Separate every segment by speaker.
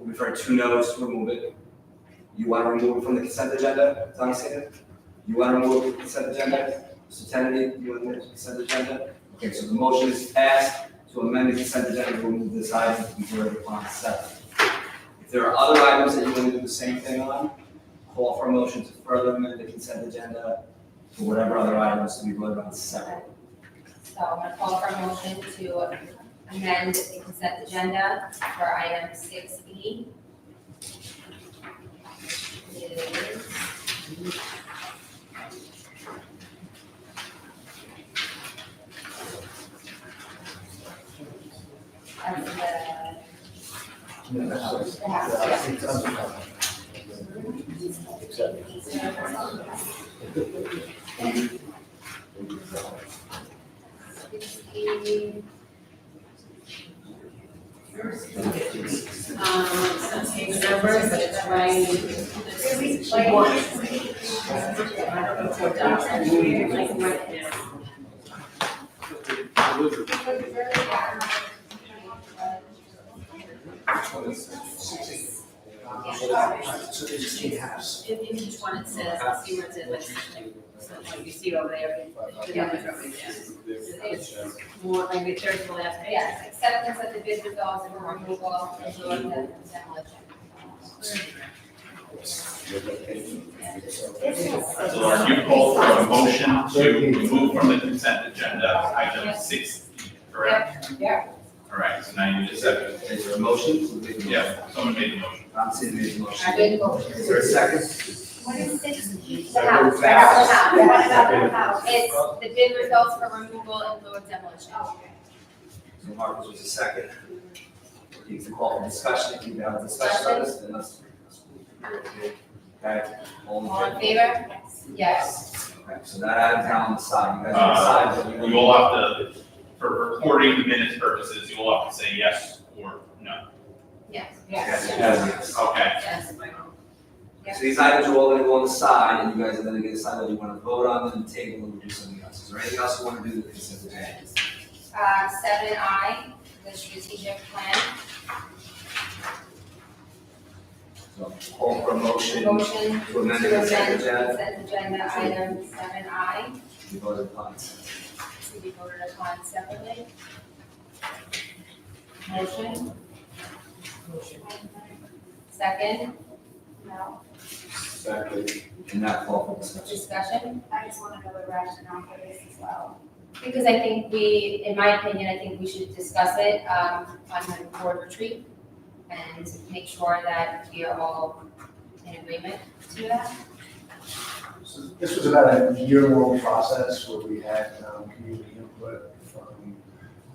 Speaker 1: We've heard two no's to remove it. You want to remove it from the consent agenda, as I'm saying? You want to remove it from the consent agenda? Mr. Kennedy, you want to remove the consent agenda? Okay, so the motion is passed to amend the consent agenda to remove this item from the order upon seven. If there are other items that you want to do the same thing on, call for a motion to further amend the consent agenda to whatever other items to be voted on seven.
Speaker 2: So I'm gonna call for a motion to amend the consent agenda for item six E. Of the, the house, yeah.
Speaker 3: Um, some page numbers, but it's right. One. I don't know if it's done, I mean, like, right there.
Speaker 4: So they just need halves.
Speaker 3: In in each one it says, let's see where it says, like, so like you see over there, the numbers over there. It's more like the third to last page.
Speaker 2: Yes, acceptance of the bid results and removal and doing the consent motion.
Speaker 5: So are you call for a motion to remove from the consent agenda item six, correct?
Speaker 2: Yeah.
Speaker 5: All right, so now you just have,
Speaker 1: Is there a motion?
Speaker 5: to- yeah, someone made the motion.
Speaker 1: I'm seeing the motion.
Speaker 2: I did vote.
Speaker 1: Is there a second?
Speaker 2: What is this?
Speaker 1: The
Speaker 2: The
Speaker 1: house.
Speaker 2: house.
Speaker 1: The house.
Speaker 2: What about the house? It's the bid results for removal and fluid demolition.
Speaker 1: So Marcus was a second. You can call for discussion, if you have a discussion on this, then let's. Okay, all
Speaker 2: All
Speaker 1: in
Speaker 2: in
Speaker 1: favor?
Speaker 2: favor? Yes.
Speaker 1: Okay, so that item's now on the side, you guys
Speaker 5: Uh,
Speaker 1: decide what
Speaker 5: You
Speaker 1: you want.
Speaker 5: will have to, for recording the minutes purposes, you will have to say yes or no.
Speaker 2: Yes.
Speaker 1: Yes, yes,
Speaker 5: Okay,
Speaker 2: Yes.
Speaker 1: yes. So these items are all gonna go on the side, and you guys are then gonna decide whether you wanna vote on them, table them, or do something else. Is there anything else you wanna do that is in the agenda?
Speaker 2: Uh, seven I, the strategic plan.
Speaker 1: So call for a motion
Speaker 2: Motion
Speaker 1: to
Speaker 2: to
Speaker 1: amend
Speaker 2: amend
Speaker 1: the consent agenda,
Speaker 2: consent agenda item seven I
Speaker 1: we voted upon it.
Speaker 2: to be voted upon separately. Motion? Second? No.
Speaker 1: and not call for discussion.
Speaker 2: Discussion?
Speaker 6: I just want to know the rationale for this as well.
Speaker 2: Because I think we, in my opinion, I think we should discuss it, um, on the board retreat and make sure that we are all in agreement to that.
Speaker 4: So This was about a year-long process where we had um, community input from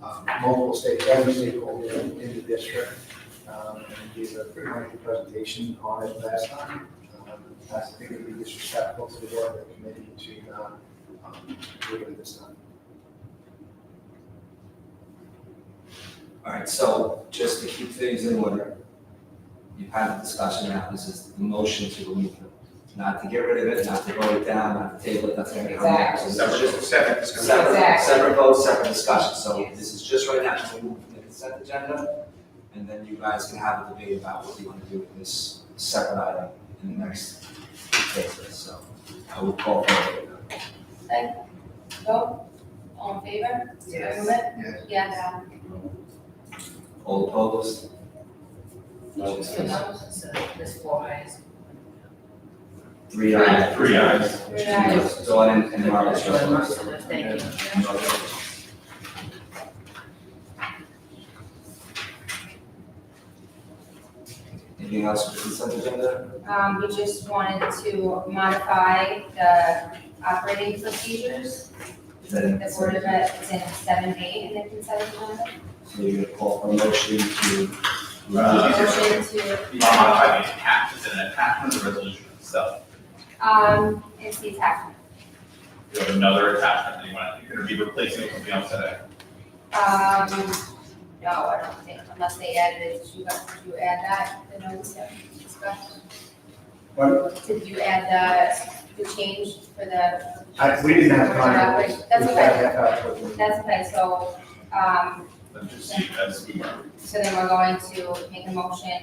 Speaker 4: um, multiple state, every stakeholder in the district. um, And we gave a pretty lengthy presentation on it last time. Um, I think it would be disrespectful to the board and the committee to not um, do it this time.
Speaker 1: All right, so just to keep things in order, you've had the discussion now, this is the motion to remove it. Not to get rid of it, not to vote it down, not to table it, nothing gonna come back. So this is
Speaker 5: separate,
Speaker 1: just
Speaker 5: separate
Speaker 1: a
Speaker 5: discussion.
Speaker 1: Separate,
Speaker 2: Exactly.
Speaker 1: separate vote, separate discussion, so this is just right now, just remove it from the consent agenda. And then you guys can have a debate about what you wanna do with this separate item in the next phase, so I will call for it.
Speaker 2: Vote? All in favor?
Speaker 3: Yes.
Speaker 2: Remove it?
Speaker 4: Yes.
Speaker 2: Yes.
Speaker 1: All opposed?
Speaker 3: So those- so this four eyes.
Speaker 1: Three ayes.
Speaker 5: Three ayes.
Speaker 2: Three ayes.
Speaker 1: Dawn and- and Marcus.
Speaker 3: Thank you.
Speaker 1: Anything else for consent agenda?
Speaker 2: Um, we just wanted to modify the operating procedures.
Speaker 1: Is that in
Speaker 2: The Board of Ed is in seven A in the consent agenda.
Speaker 1: So you're gonna call for a motion to.
Speaker 5: Uh,
Speaker 2: Motion to,
Speaker 5: Modify the attachment, it's an attachment of the resolution itself.
Speaker 2: um, it's the attachment.
Speaker 5: You have another attachment that you want, you're gonna be replacing with something else today.
Speaker 2: Um, no, I don't think, unless they added it, did you, guys- did you add that, the notice of discussion? Did you add the, the change for the,
Speaker 4: I- We didn't have time.
Speaker 2: That's okay.
Speaker 4: We had half hour for it.
Speaker 2: that's okay, so, um,
Speaker 5: Let's just see, as we were.
Speaker 2: So then we're going to make a motion